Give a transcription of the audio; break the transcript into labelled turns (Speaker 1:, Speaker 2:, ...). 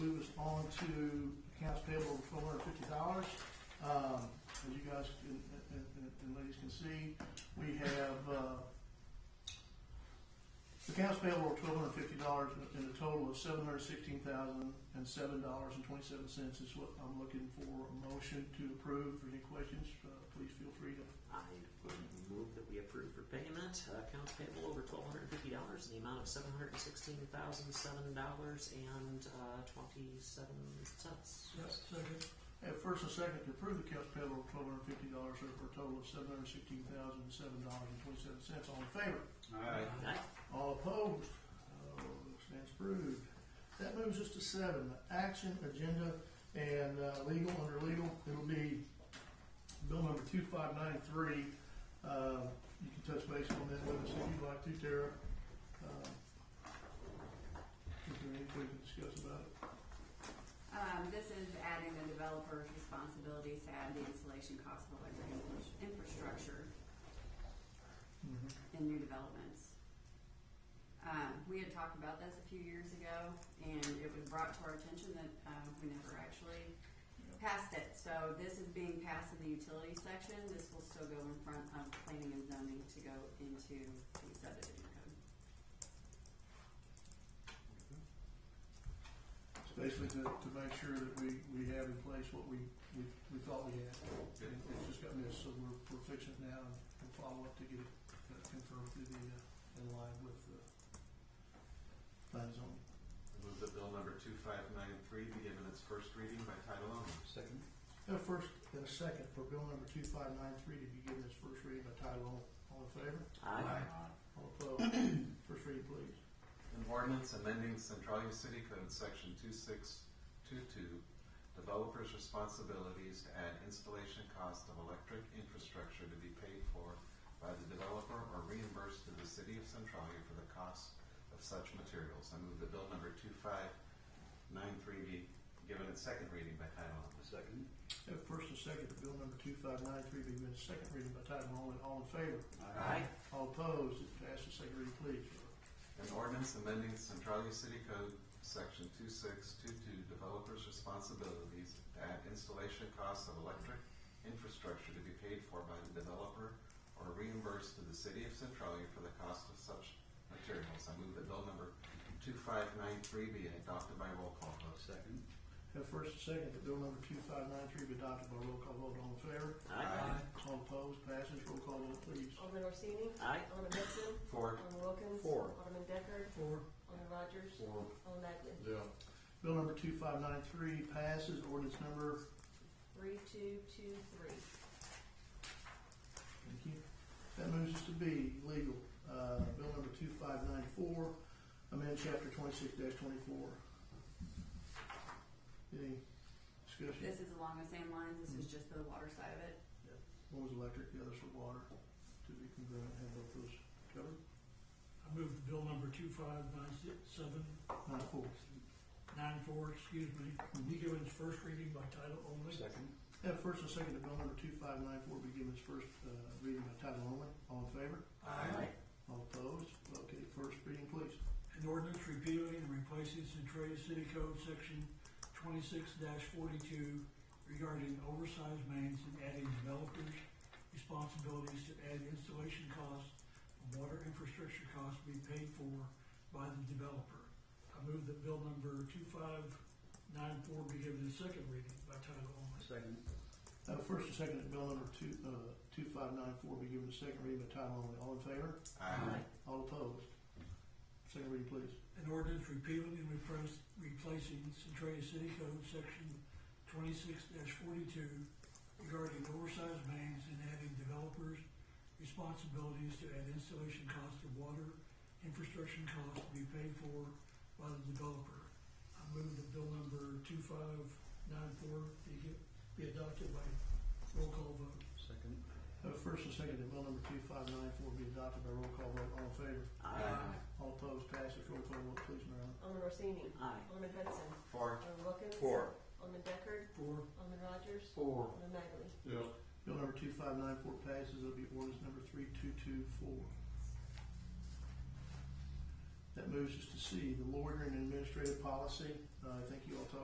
Speaker 1: on to accounts payable of twelve hundred fifty dollars. Um, as you guys and, and, and- and ladies can see, we have, uh, accounts payable of twelve hundred fifty dollars and a total of seven hundred sixteen thousand and seven dollars and twenty-seven cents is what I'm looking for a motion to approve. For any questions, uh, please feel free to
Speaker 2: I would move that we approve for payment, uh, accounts payable over twelve hundred and fifty dollars in the amount of seven hundred and sixteen thousand, seven dollars and, uh, twenty-seven cents.
Speaker 1: Yes, second. At Uh, first and second to approve the accounts payable of twelve hundred fifty dollars for a total of seven hundred sixteen thousand, seven dollars and twenty-seven cents. All in favor?
Speaker 3: Aye.
Speaker 1: All opposed? Oh, stands approved. That moves us to seven, the action agenda and uh, legal, under legal, it'll be bill number two five nine three. Uh, You can touch base on that with us if you'd like to, Tara. Um, Is there anything we can discuss about it?
Speaker 4: Um, this is adding the developer's responsibilities to add the installation cost of electric infra- infrastructure in new developments. Um, we had talked about this a few years ago, and it was brought to our attention that, um, we never actually passed it. So this is being passed in the utility section, this will still go in front of planning and zoning to go into the subdivision code.
Speaker 1: It's basically to, to make sure that we, we have in place what we, we, we thought we had. And it's just got missed, so we're, we're fixing it now and we'll follow up to get it uh, confirmed through the, uh, in line with the plan zone.
Speaker 3: Move that bill number two five nine three be given its first reading by title only.
Speaker 5: Second.
Speaker 1: A first and a second for bill number two five nine three to be given its first reading by title only. All in favor?
Speaker 2: Aye.
Speaker 1: All opposed? First reading, please.
Speaker 3: An ordinance amending Centralia City Code Section two six two two, developers' responsibilities to add installation cost of electric infrastructure to be paid for by the developer or reimbursed to the city of Centralia for the cost of such materials. I move that bill number two five nine three be given its second reading by title only.
Speaker 5: Second.
Speaker 1: A Uh, first and second for bill number two five nine three be given its second reading by title only. All in favor?
Speaker 2: Aye.
Speaker 1: All opposed? It passes. Second reading, please.
Speaker 3: An ordinance amending Centralia City Code, Section 2622, developers' responsibilities to add installation costs of electric infrastructure to be paid for by the developer or reimbursed to the city of Centralia for the cost of such materials. I move that bill number 2593 be adopted by roll call vote.
Speaker 5: Second.
Speaker 1: Have first and second that bill number two five nine three be adopted by roll call vote. All in favor?
Speaker 2: Aye.
Speaker 1: All opposed? Passes. Roll call vote, please.
Speaker 6: Alderman Orsini?
Speaker 2: Aye.
Speaker 6: Alderman Hudson?
Speaker 3: Four.
Speaker 6: Alderman Wilkins?
Speaker 5: Four.
Speaker 6: Alderman Deckard?
Speaker 1: Four.
Speaker 6: Alderman Rogers?
Speaker 5: Four.
Speaker 6: Alderman Magley?
Speaker 5: Yeah.
Speaker 1: Bill number two five nine three passes. Ordinance number,
Speaker 6: Three, two, two, three.
Speaker 1: thank you. That moves us to B, legal. Uh, bill number two five nine four, amend chapter twenty-six twenty-four. Any discussion?
Speaker 4: This is along the same lines, this is just the water side of it.
Speaker 1: One was electric, the other's for water. To be congruent, have both those covered.
Speaker 7: I move the bill number two five nine six seven
Speaker 1: Nine four.
Speaker 7: nine four, excuse me, be given its first reading by title only.
Speaker 5: Second.
Speaker 1: Have first and second that bill number two five nine four be given its first, uh, reading by title only. All in favor?
Speaker 7: Aye.
Speaker 1: All opposed? Okay, first reading, please.
Speaker 7: An ordinance repealing and replacing Centralia City Code Section twenty-six forty-two regarding oversized mains and adding developers' responsibilities to add installation costs and water infrastructure costs be paid for by the developer. I move that bill number two five nine four be given its second reading by title only.
Speaker 5: Second.
Speaker 1: Uh, first and second, that bill number two, uh, two five nine four be given a second reading by title only. All in favor?
Speaker 3: Aye.
Speaker 1: All opposed? Second reading, please.
Speaker 7: An ordinance repealing and replace- replacing Centaria City Code Section twenty-six forty-two regarding oversized mains and adding developers' responsibilities to add installation cost of water, infrastructure costs to be paid for by the developer. I move that bill number two-five-nine-four be get- be adopted by roll call vote.
Speaker 5: Second.
Speaker 1: Uh, first and second, that bill number two five nine four be adopted by roll call vote. All in favor?
Speaker 2: Aye.
Speaker 1: All opposed? Passes. Roll call vote, please, Marilyn.
Speaker 6: Alderman Orsini?
Speaker 2: Aye.
Speaker 6: Alderman Hudson?
Speaker 3: Four.
Speaker 6: Alderman Wilkins?
Speaker 5: Four.
Speaker 6: Alderman Deckard?
Speaker 7: Four,
Speaker 6: Alderman Rogers?
Speaker 5: Four.
Speaker 6: Alderman Magley?
Speaker 5: Yeah.
Speaker 1: Bill number two five nine four passes. It'll be ordinance number three two two four. That moves us to C, the loitering and administrative policy. Uh, I think you all talked